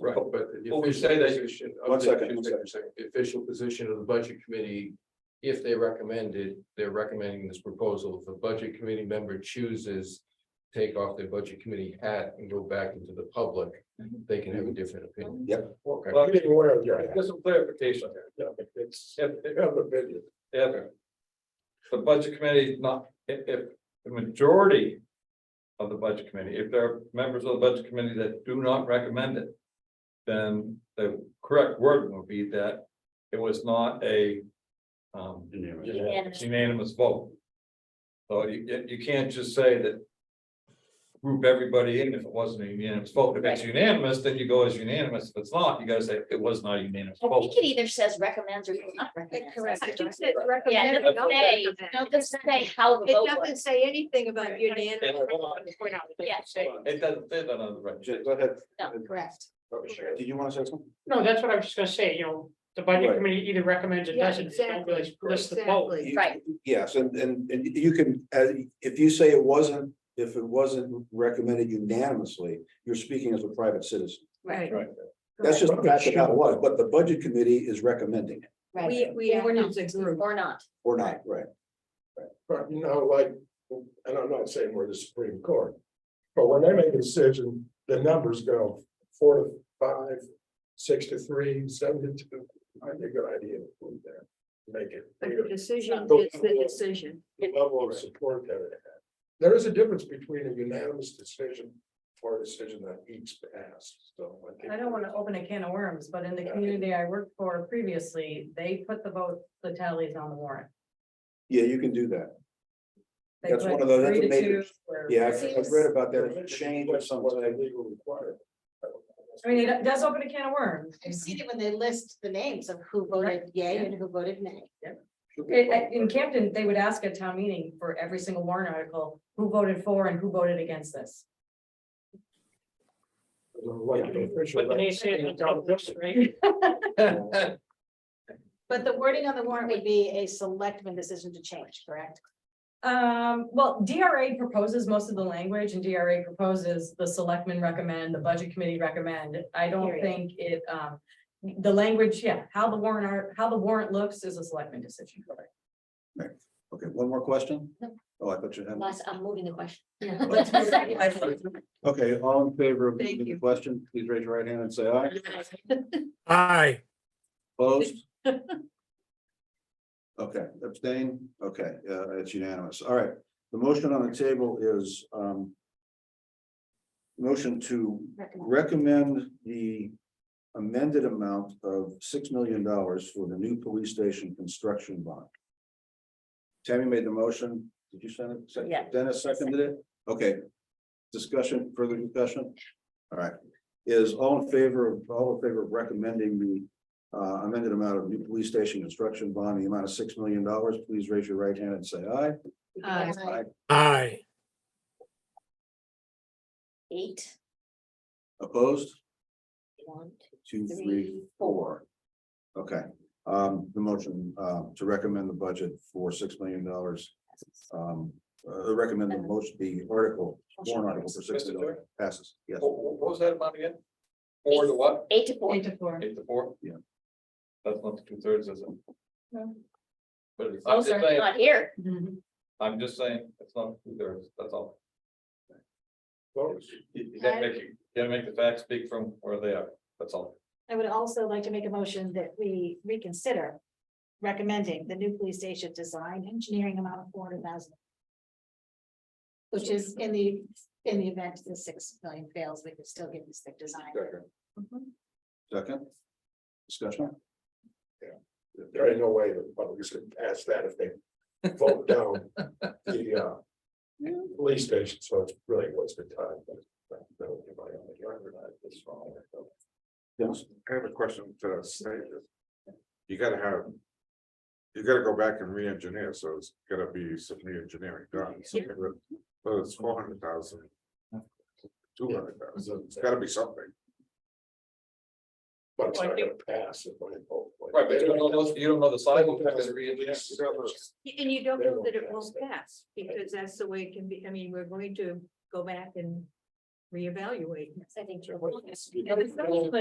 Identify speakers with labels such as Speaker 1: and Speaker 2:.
Speaker 1: Right, but. the
Speaker 2: Well, we
Speaker 1: official
Speaker 2: say that you
Speaker 1: position of
Speaker 3: One
Speaker 1: the-
Speaker 3: second,
Speaker 1: just
Speaker 3: one
Speaker 1: a second. The official position of the budget committee, if they recommended, they're recommending this proposal. If the budget committee member chooses. to Take off their budget committee hat and go back into the public, they can have a different opinion. Okay.
Speaker 2: Well,
Speaker 4: didn't wear it, yeah.
Speaker 2: There's some clarification there.
Speaker 4: Yeah, it's-
Speaker 2: If,
Speaker 4: they have a video.
Speaker 2: if the budget committee not, if, if the majority of the budget committee, if there are members of the budget committee that do not recommend it, then the correct word would be that it was not a um
Speaker 5: Unanimous.
Speaker 2: unanimous vote. So you, you- you can't just say that group everybody in if it wasn't a unanimous vote. If it's unanimous, then you go as unanimous. If it's not, you gotta say it was not a unanimous
Speaker 5: I
Speaker 2: vote.
Speaker 5: think it either says recommends or does not recommend.
Speaker 6: Correct.
Speaker 7: I think that recommend-
Speaker 5: Yeah, it doesn't say,
Speaker 7: Recommend.
Speaker 5: no, it doesn't say how the
Speaker 7: It
Speaker 5: vote was.
Speaker 7: doesn't say anything about
Speaker 2: And-
Speaker 7: unanimous.
Speaker 5: Yeah.
Speaker 2: It doesn't fit on the right.
Speaker 3: Jen, Go ahead.
Speaker 5: No, correct.
Speaker 3: Oh, Sharon, Did you want to say something?
Speaker 8: No, that's what I was just gonna say, you know, the budget
Speaker 3: Right.
Speaker 8: committee either recommends or
Speaker 7: Yeah,
Speaker 8: doesn't, they don't really list the vote.
Speaker 7: Exactly.
Speaker 3: You-
Speaker 5: Right.
Speaker 3: Yes, and, and, and you can, uh, if you say it wasn't, if it wasn't recommended unanimously, you're speaking as a private citizen.
Speaker 7: Right.
Speaker 2: Right.
Speaker 3: That's just, that's about what, but the budget committee is recommending it,
Speaker 7: We, we
Speaker 5: Or
Speaker 7: act
Speaker 5: not,
Speaker 7: as a group.
Speaker 5: or not.
Speaker 3: or not, right?
Speaker 4: But you know, like, and I'm not saying we're the Supreme Court, but when they make a decision, the numbers go four to five, six to three, seven to two. I think a good idea to put there, make it
Speaker 7: But
Speaker 4: clear
Speaker 7: the decision
Speaker 4: Those
Speaker 7: is the
Speaker 4: people-
Speaker 7: decision.
Speaker 4: the level of support that it had. There is a difference between a unanimous decision or a decision that each passed, so. think-
Speaker 9: I don't want to open a can of worms, but in the
Speaker 4: Yeah.
Speaker 9: community I worked for previously, they put the vote, the tallies on the warrant.
Speaker 3: Yeah, you can do that.
Speaker 9: They
Speaker 3: That's
Speaker 9: put
Speaker 3: one of those- that's
Speaker 9: three
Speaker 3: a
Speaker 9: to
Speaker 3: major-
Speaker 9: two or-
Speaker 3: Yeah, I've- I've
Speaker 5: Seems-
Speaker 3: read about that, it's a change or something.
Speaker 4: legal requirement.
Speaker 9: I mean, it does open a can of worms.
Speaker 5: I've seen it when they list the names of who voted yay and who voted nay.
Speaker 9: It- I- In Camden, they would ask at town meeting for every single warrant article, who voted for and who voted against this.
Speaker 8: But they say it's on this, right?
Speaker 5: But the wording on the warrant would be a selectman decision to change, correct?
Speaker 9: Um, well, DRA proposes most of the language and DRA proposes the selectmen recommend, the budget committee recommend. I don't
Speaker 5: Period.
Speaker 9: think it, um, the language, yeah, how the warrant, are- how the warrant looks is a selectman decision.
Speaker 3: Okay, one more question?
Speaker 5: No.
Speaker 3: Oh, I thought you had.
Speaker 5: Unless I'm moving the question.
Speaker 3: Okay, all in favor of
Speaker 7: Thank
Speaker 3: the
Speaker 7: you.
Speaker 3: question, please raise your right hand and say aye.
Speaker 4: Aye.
Speaker 3: Opposed? Okay, abstain, okay, uh, it's unanimous, all right, the motion on the table is, um. Motion to recommend the amended amount of six million dollars for the new police station construction bond. Tammy made the motion, did you send it? Sec-
Speaker 5: Yeah.
Speaker 3: Dennis seconded it, okay. Discussion, further discussion? All right, is all in favor of, all in favor of recommending the uh, amended amount of new police station construction bond, in the amount of six million dollars, please raise your right hand and say aye.
Speaker 7: Uh,
Speaker 5: Aye. Eight,
Speaker 3: Opposed,
Speaker 5: one, two,
Speaker 3: two, three, four. Okay, um, the motion, uh, to recommend the budget for six million dollars, um, uh, recommend the motion, the article, warrant article for six million dollars passes, yes.
Speaker 4: Oh,
Speaker 2: What, what was that amount again? Four to what?
Speaker 5: Eight to four.
Speaker 9: Eight to four.
Speaker 2: Eight to four?
Speaker 3: Yeah.
Speaker 2: That's not the two thirds, is it?
Speaker 9: No. Oh,
Speaker 2: But it's, I'm
Speaker 5: Those
Speaker 2: just
Speaker 5: are
Speaker 2: saying,
Speaker 5: Oh, not here.
Speaker 2: I'm just saying, it's not two thirds, that's all. You you gotta make, you gotta make the facts speak from where they are, that's all.
Speaker 6: I would also like to make a motion that we reconsider recommending the new police station design engineering amount of four hundred thousand. Which is in the, in the event the six million fails, we could still give this the design.
Speaker 3: Second, discussion,
Speaker 4: There ain't no way the public is gonna pass that if they vote down the uh. Police station, so it's really wasted time, but. but that would be my only argument, it's wrong.
Speaker 3: yes,
Speaker 10: I have a question to say. You gotta have. You gotta go back and re-engineer, so it's gotta be some re-engineering done. So get rid- Whether it's four hundred thousand. Two hundred thousand, it's gotta be something.
Speaker 4: But it's not gonna pass if I vote.
Speaker 2: Right, but you don't know, you don't know the cycle.
Speaker 7: And you don't know that it won't pass, because that's the way it can be, I mean, we're going to go back and reevaluate.
Speaker 5: I think.
Speaker 7: And it's not like-